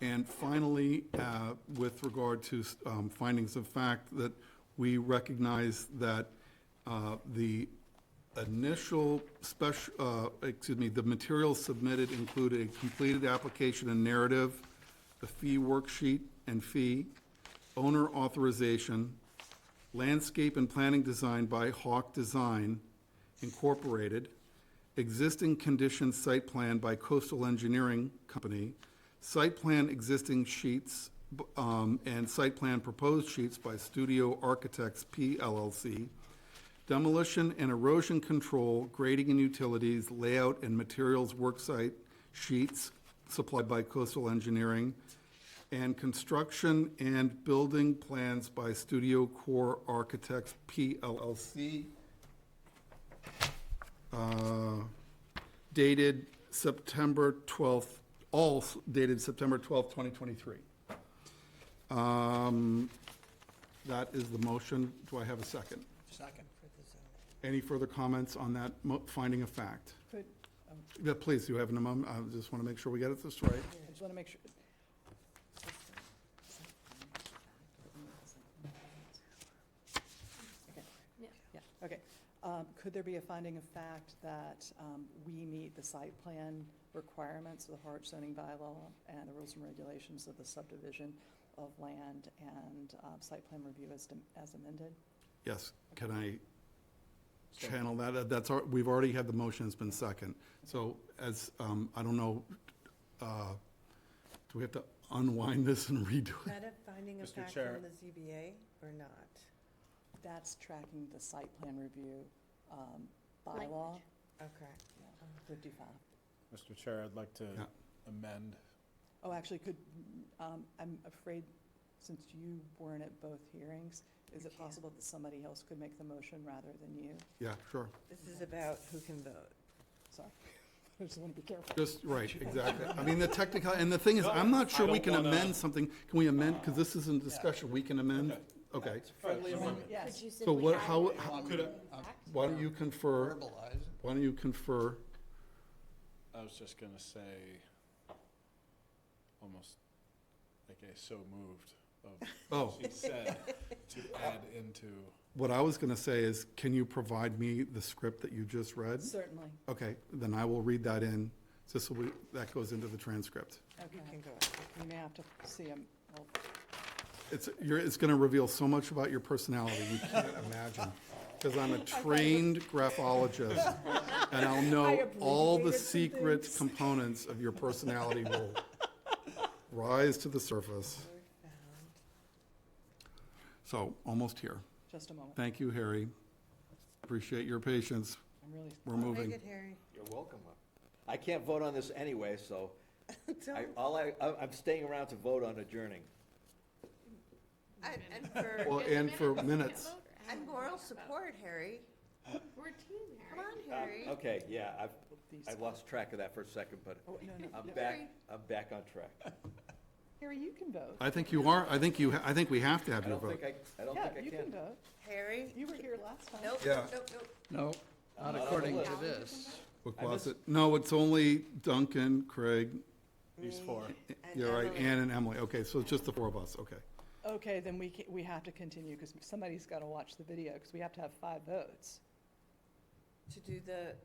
And finally, uh, with regard to um, findings of fact, that we recognize that uh, the initial special, uh, excuse me, the material submitted included a completed application and narrative, the fee worksheet and fee, owner authorization, landscape and planning design by Hawk Design Incorporated, existing condition site plan by Coastal Engineering Company, site plan existing sheets, b- um, and site plan proposed sheets by Studio Architects P LLC, demolition and erosion control, grading and utilities, layout and materials worksite sheets supplied by Coastal Engineering, and construction and building plans by Studio Core Architects PLLC, uh, dated September 12th, all s- dated September 12th, 2023. Um, That is the motion. Do I have a second? Second. Any further comments on that mo- finding of fact? Could, Yeah, please, you have an amendment. I just want to make sure we get it this right. I just want to make sure, yeah, okay. Um, Could there be a finding of fact that um, we meet the site plan requirements of the Harwich zoning bylaw and the rules and regulations of the subdivision of land and um, site plan review as dem- as amended? Yes, can I channel that? Uh, That's, our- we've already had the motion, it's been second. So as, um, I don't know, uh, do we have to unwind this and redo it? Is that a finding of Mr. fact Chair. on the ZBA or not? That's tracking the site plan review um, bylaw Language. Okay. 55. Mr. Chair, I'd like to Yeah. amend. Oh, actually, could, um, I'm afraid, since you weren't at both hearings, is You it can't. possible that somebody else could make the motion rather than you? Yeah, sure. This is about who can vote. Sorry, I just want to be careful. Just, right, exactly. I mean, the technical, and the thing is, I'm not sure I we don't can wanna- amend something. Can we amend, because this isn't discussion, we can amend? Okay. Friendly amendment. Yes, So what, how, how- Could Could uh, why don't you confer, verbalize it. why don't you confer? I was just gonna say, almost like a so moved of. Oh. She said to add into, What I was going to say is, can you provide me the script that you just read? certainly, Okay, then I will read that in, so so we- that goes into the transcript. You okay. can go. out. You may have to see him, well, It's, you're, it's going to reveal so much about your personality, you can't imagine. Because I'm a trained graphologist, and I'll know all the secret components of your personality will rise to the surface. Word found. So, almost here. just a moment, Thank you, Harry. Appreciate your patience. I'm really, We're Very moving. good, Oh, Harry. You're welcome. I can't vote on this anyway, so I, Don't- all I, I- I'm staying around to vote on adjourning. I- And Well, for, and for minutes, and moral support, Harry. We're a team, Come Harry. on, Uh, Harry. Um, Okay, yeah, I've, these, I lost track of that for a second, but oh, no, no, I'm no. back, I'm back on track. Harry, you can vote. I think you are, I think you, ha- I think we have to have I your don't vote. think I, I don't Yeah, think I can. you can vote, Harry? you were here last time. Nope, Yeah. nope, nope. No, I'm not not on the according to list. this. What I miss- was it? No, it's only Duncan, Craig, these four. And you're right, Emily. Ann and Emily. Okay, so it's just the four of us, okay. Okay, then we, ca- we have to continue, because somebody's got to watch the video, because we have to have five votes. To do the,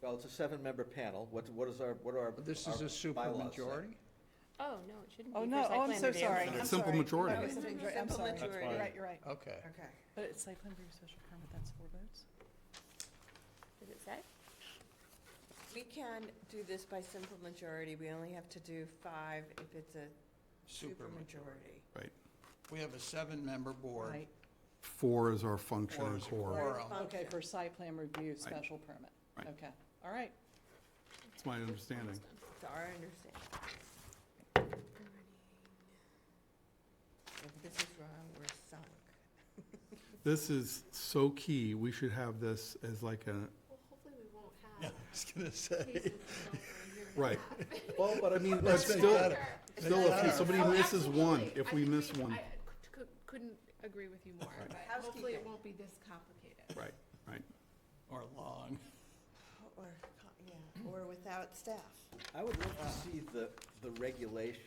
Well, it's a seven-member panel. What, what is our, what are our? But This our is a bylaws say? supermajority? Oh, no, it shouldn't be. Oh, for no, site oh, I'm plan so review. sorry, No, I'm simple sorry. majority. No, it's a majority. I'm Simple sorry, majority. you're That's right, fine. you're right. Okay. okay. But it's site plan review special permit, that's four votes? Does it say? We can do this by simple majority. We only have to do five if it's a super majority. Right. We have a seven-member board. Right. Four is our function Four and is a core. quorum. Okay, for site plan review, special permit. Right. Okay, all right. It's my understanding. To our understanding. If this is wrong, we're sunk. This is so key. We should have this as like a, Well, hopefully we won't I have was gonna say. cases of cell phone here. right. Well, but I mean, But let's still, make still, that, if somebody Oh, misses one, absolutely. if I we think miss we- one, I c- c- Couldn't agree with you more, but hopefully Housekeeping. it won't be this complicated. right, right. or long. Or, co- yeah, or without staff. I would love to see the, the regulation